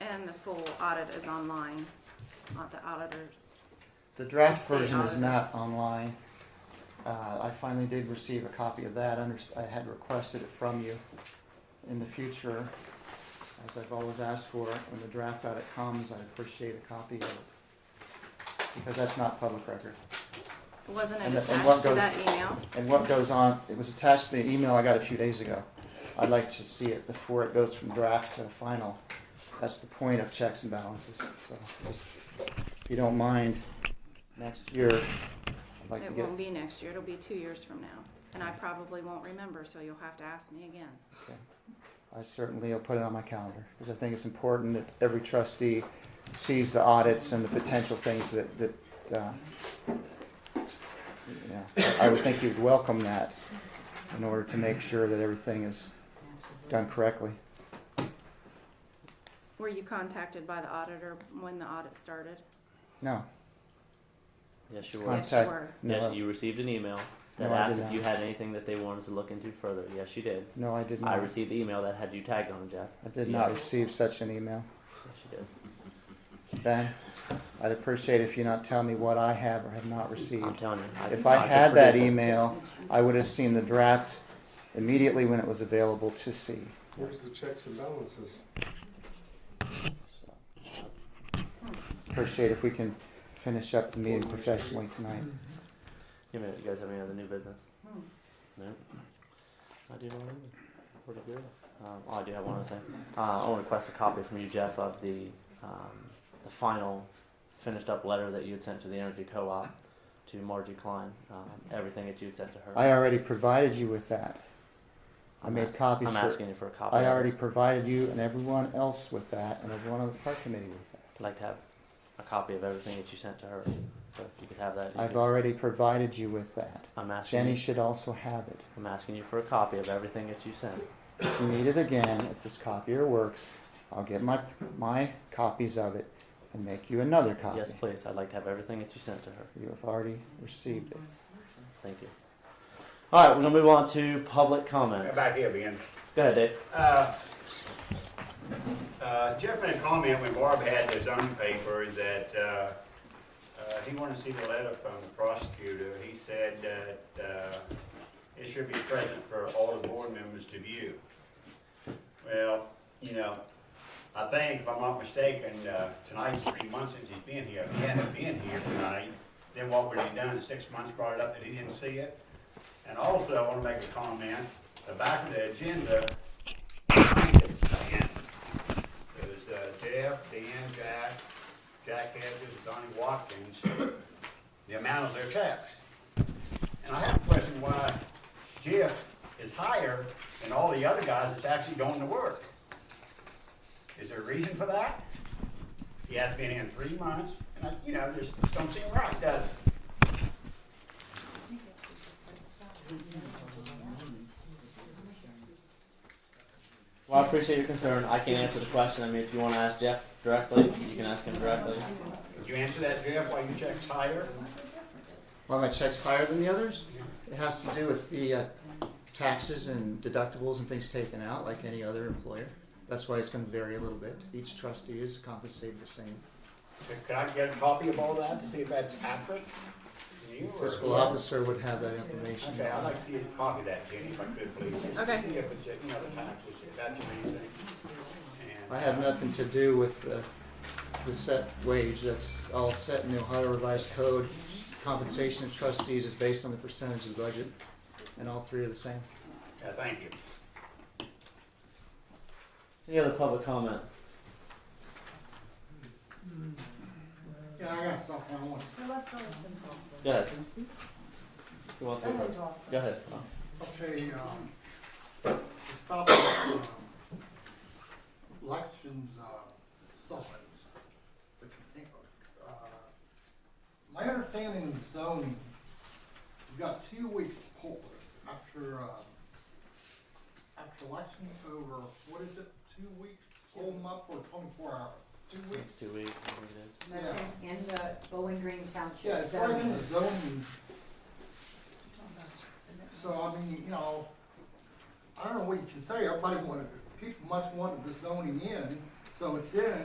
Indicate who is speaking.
Speaker 1: and the full audit is online, not the auditor.
Speaker 2: The draft
Speaker 1: State
Speaker 2: version is
Speaker 1: auditors.
Speaker 2: not online. Uh, I finally did receive a copy of that. Under- I had requested it from you in the future, as I've always asked for it. When the draft audit comes, I appreciate a copy of it. Because that's not public record.
Speaker 1: Wasn't it
Speaker 2: And the- and what
Speaker 1: attached to
Speaker 2: goes-
Speaker 1: that email?
Speaker 2: And what goes on, it was attached to the email I got a few days ago. I'd like to see it before it goes from draft to final. That's the point of checks and balances, so just, if you don't mind, next year, I'd like to
Speaker 1: It
Speaker 2: get.
Speaker 1: won't be next year, it'll be two years from now, and I probably won't remember, so you'll have to ask me again.
Speaker 2: I certainly will put it on my calendar, because I think it's important that every trustee sees the audits and the potential things that, that, uh, you know, I would think you'd welcome that in order to make sure that everything is done correctly.
Speaker 1: Were you contacted by the auditor when the audit started?
Speaker 2: No,
Speaker 3: Yes,
Speaker 2: It's
Speaker 3: you were.
Speaker 2: con-
Speaker 1: Yes,
Speaker 2: Contact-
Speaker 1: you were.
Speaker 3: Yes,
Speaker 2: no,
Speaker 3: you received an email that
Speaker 2: No, I
Speaker 3: asked
Speaker 2: did
Speaker 3: if
Speaker 2: not.
Speaker 3: you had anything that they wanted to look into further. Yes, you did.
Speaker 2: no, I did
Speaker 3: I
Speaker 2: not.
Speaker 3: received the email that had you tagged on it, Jeff.
Speaker 2: I did not
Speaker 3: Yes.
Speaker 2: receive such an email.
Speaker 3: Yes, you did.
Speaker 2: Ben, I'd appreciate if you not tell me what I have or have not
Speaker 3: I'm
Speaker 2: received.
Speaker 3: telling you.
Speaker 2: If I
Speaker 3: could
Speaker 2: had that
Speaker 3: produce it.
Speaker 2: email, I would have seen the draft immediately when it was available to see.
Speaker 4: Where's the checks and balances?
Speaker 2: Appreciate if we can finish up the meeting professionally tonight.
Speaker 3: Give me a minute, you guys have any other new business?
Speaker 1: Hmm.
Speaker 3: No? I do not either. Pretty good. Um, oh, I do have one other thing. Uh, I'll request a copy from you, Jeff, of the, um, the final finished up letter that you had sent to the Energy Co-op to Margie Klein, um, everything that you had sent to her.
Speaker 2: I already provided you with that. I
Speaker 3: I'm
Speaker 2: made
Speaker 3: a-
Speaker 2: copies
Speaker 3: I'm
Speaker 2: for,
Speaker 3: asking you for a copy.
Speaker 2: I
Speaker 3: of it.
Speaker 2: already provided you and everyone else with that and everyone on the park committee with that.
Speaker 3: I'd like to have a copy of everything that you sent to her. So if you could have that. you
Speaker 2: I've
Speaker 3: could-
Speaker 2: already provided you with that.
Speaker 3: I'm asking
Speaker 2: Jenny
Speaker 3: you,
Speaker 2: should also have it.
Speaker 3: I'm asking you for a copy of everything that you sent.
Speaker 2: If you need it again, if this copier works, I'll get my, my copies of it and make you another copy.
Speaker 3: Yes, please. I'd like to have everything that you sent to her.
Speaker 2: You have already received it.
Speaker 3: Thank you. All right, we're gonna move on to public comments.
Speaker 5: Back here again.
Speaker 3: Go ahead, Dave.
Speaker 5: Uh, uh, Jeff made a comment when Barb had his own paper that uh, uh, he wanted to see the letter from the prosecutor. He said that uh, it should be present for all the board members to view. Well, you know, I think, if I'm not mistaken, uh, tonight's three months since he's been here. If he hadn't been here tonight, then what would he done? Six months brought it up that he didn't see it? And also, I want to make a comment, the back of the agenda, it was uh, Jeff, Dan, Jack, Jack Hedges, Donnie Watkins, the amount of their checks. And I have a question why Jeff is higher than all the other guys that's actually going to work. Is there a reason for that? He has been in three months, and I, you know, just don't seem right, does it?
Speaker 3: Well, I appreciate your concern. I can answer the question. I mean, if you wanna ask Jeff directly, you can ask him directly.
Speaker 5: Could you answer that, Jeff, why your check's higher?
Speaker 2: Why my check's higher than the others? It has to do with the uh, taxes and deductibles and things taken out, like any other employer. That's why it's going to vary a little bit. Each trustee is compensated the same.
Speaker 5: Could I get a copy of all that to see if that's accurate? You or-
Speaker 2: Fiscal officer would have that information.
Speaker 5: Okay, I'd like to see a copy of that, Jenny, if I could, please. just to
Speaker 1: Okay.
Speaker 5: See if it's, you know, the taxes, if that's the main thing. And,
Speaker 2: I have
Speaker 5: uh,
Speaker 2: nothing to do with the, the set wage, that's all set in the Ohio Revised Code. Compensation of trustees is based on the percentage of the budget, and all three are the same.
Speaker 5: uh, Yeah, thank you.
Speaker 3: Any other public comment?
Speaker 4: Yeah, I got stuff I want.
Speaker 3: Go ahead. Who wants to go first? Go ahead.
Speaker 4: Okay, um, it's about, um, elections, uh, stuff like this. But, uh, My understanding is zoning, you've got two weeks to pull it after, uh, after election's over, what is it, two weeks? Pull them up for twenty-four hours, two weeks?
Speaker 3: Next two weeks, I think it is.
Speaker 6: That's in, in the Bowling Green Township.
Speaker 4: Yeah, it's right
Speaker 6: zoning.
Speaker 4: in the zoning. So, I mean, you know, I don't know what you can say, everybody wanted, people must want the zoning in, so it's in,